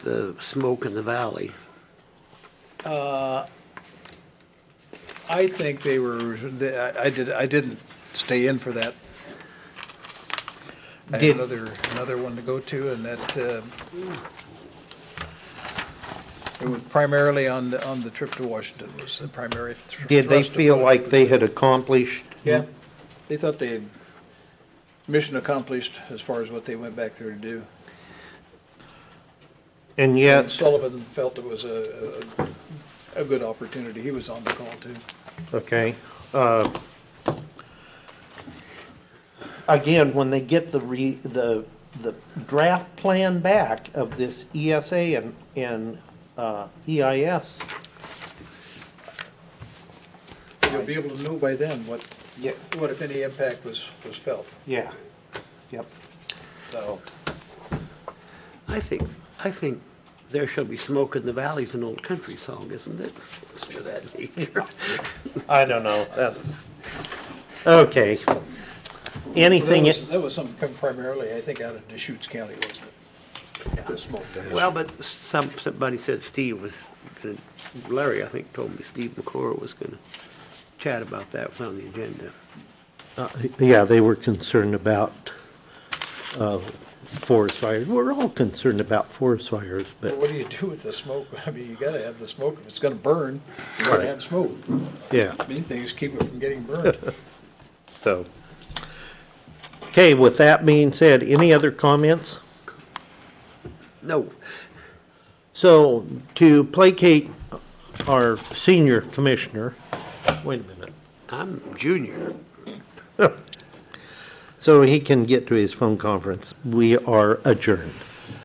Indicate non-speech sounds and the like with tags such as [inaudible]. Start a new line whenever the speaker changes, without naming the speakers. the smoke in the valley.
Uh, I think they were, they- I I did, I didn't stay in for that. I
Did-
had another, another one to go to, and that, uh, it was primarily on the, on the trip to Washington was the primary thr-
Did they
thrust of
feel
what I
like
was-
they had accomplished?
Yeah, they thought they, had mission accomplished as far as what they went back there to do.
And
And
yet,
Sullivan felt it was a, a, a good opportunity. He was on the call too.
okay. uh, Again, when they get the re, the, the draft plan back of this ESA and, and uh, EIS,
You'll be able to know by then what,
Yeah.
what if any impact was, was felt.
yeah, yep.
So,
I think, I think there shall be smoke in the valley's an old country song, isn't it? It's to that nature.
I don't know. That- Okay. Anything,
That was, that was something come primarily, I think, out of Deschutes County, wasn't it? The smoke. damage.
Well, but some, somebody said Steve was, gonna- Larry, I think, told me Steve McClure was gonna chat about that on the agenda.
uh, yeah, they were concerned about uh, forest fires. We're all concerned about forest fires,
But
but,
what do you do with the smoke? [laughs] I mean, you gotta have the smoke. If it's gonna burn, you gotta
Right.
have smoke.
yeah,
Main thing is keep it from getting burned.
so. Okay, with that being said, any other comments?
No,
So, to placate our senior commissioner, wait a minute.
I'm junior.
So he can get to his phone conference. We are adjourned.